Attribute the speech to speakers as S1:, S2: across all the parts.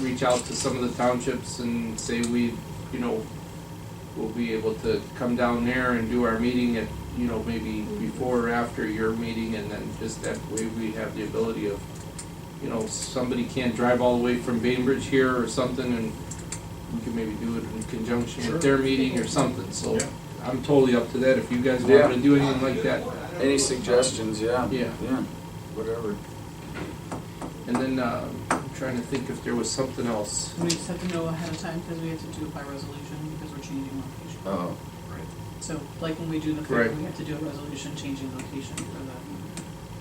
S1: reach out to some of the townships and say we, you know, we'll be able to come down there and do our meeting at, you know, maybe before or after your meeting, and then just that way we have the ability of, you know, somebody can't drive all the way from Bainbridge here or something, and we can maybe do it in conjunction
S2: Sure.
S1: with their meeting or something, so
S2: Yeah.
S1: I'm totally up to that, if you guys
S3: Yeah.
S1: want to do anything like that,
S3: Any suggestions, yeah?
S1: Yeah.
S3: Yeah, whatever.
S1: and then, uh, I'm trying to think if there was something else.
S4: We just have to know ahead of time because we have to do it by resolution because we're changing location.
S3: Oh,
S4: So like when we do the fair,
S1: Right.
S4: we have to do a resolution changing location for the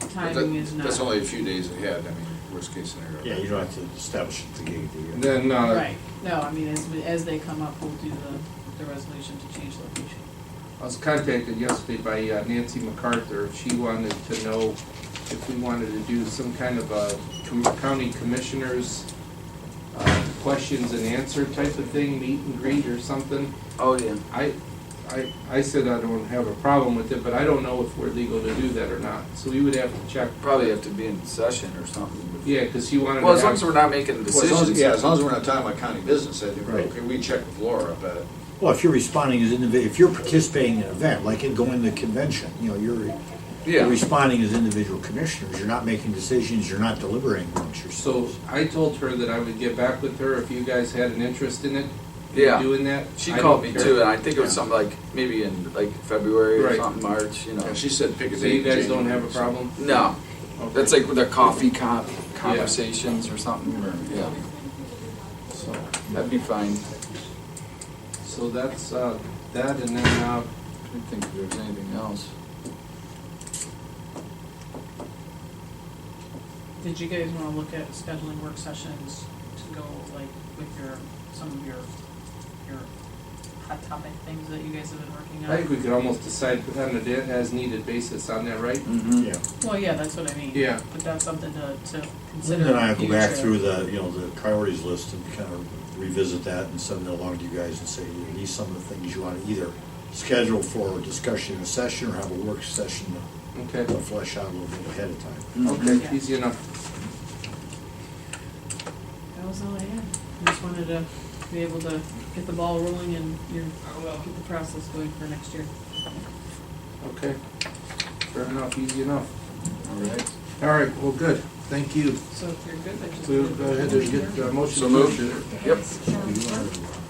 S3: but
S4: timing is
S3: that,
S4: not.
S3: that's only a few days ahead, I mean, worst case scenario.
S2: Yeah, you don't have to establish it to get
S1: And
S2: the,
S1: Then, uh,
S4: Right, no, I mean, as, we- as they come up, we'll do the, the resolution to change location.
S1: I was contacted yesterday by uh, Nancy MacArthur. She wanted to know if we wanted to do some kind of a com- county commissioners uh, questions and answer type of thing, meet and greet or something.
S3: Oh, yeah.
S1: I, I, I said I don't have a problem with it, but I don't know if we're legal to do that or not. So we would have to check.
S3: Probably have to be in session or something. before-
S1: Yeah, because she wanted to
S3: Well, as long as
S1: have,
S3: we're not making
S5: Well, as long as-
S3: decisions.
S5: Yeah, as long as we're not talking about county business, I think, we're
S2: Right.
S5: okay, we check with Laura, but
S2: well, if you're responding as individual, if you're participating in an event, like in going to the convention, you know, you're you're
S3: Yeah,
S2: responding as individual commissioners, you're not making decisions, you're not deliberating amongst
S1: so
S2: yourselves.
S1: I told her that I would get back with her if you guys had an interest in it, in
S3: yeah.
S1: doing that.
S3: She
S1: I
S3: called me
S1: don't
S3: too,
S1: care.
S3: and I think it was something like, maybe in like February or
S1: Right.
S3: something, March, you know.
S5: yeah, she said pick a date.
S1: So you
S5: in
S1: guys don't
S5: January,
S1: have a
S5: so-
S1: problem?
S3: No,
S1: Okay.
S3: that's like the coffee con conversations or something, or, yeah,
S1: So.
S3: that'd be fine.
S1: So that's, uh, that and then, uh,
S3: I don't think there's anything else.
S4: Did you guys wanna look at scheduling work sessions to go like with your, some of your, your hot topic things that you guys have been working on?
S1: I think we could almost decide on an as needed basis on that, right?
S3: Mm-hmm.
S2: Yeah,
S4: Well, yeah, that's what I mean.
S1: Yeah.
S4: But that's something to, to consider.
S2: Linda and I
S4: in
S2: will go back
S4: future.
S2: through the, you know, the priorities list and kind of revisit that and send it along to you guys and say, you know, these some of the things you want to either schedule for a discussion in a session or have a work session
S1: Okay,
S2: to flesh out a little bit ahead of time.
S3: Mm-hmm.
S1: okay, easy enough.
S4: That was all I had. I just wanted to be able to get the ball rolling and your, get the process going for next year.
S1: Okay, fair enough, easy enough.
S3: All right.
S1: All right, well, good, thank you.
S4: So if you're good, I just.
S1: We'll go ahead and get the motion.
S3: So moved. Yep.
S2: You are-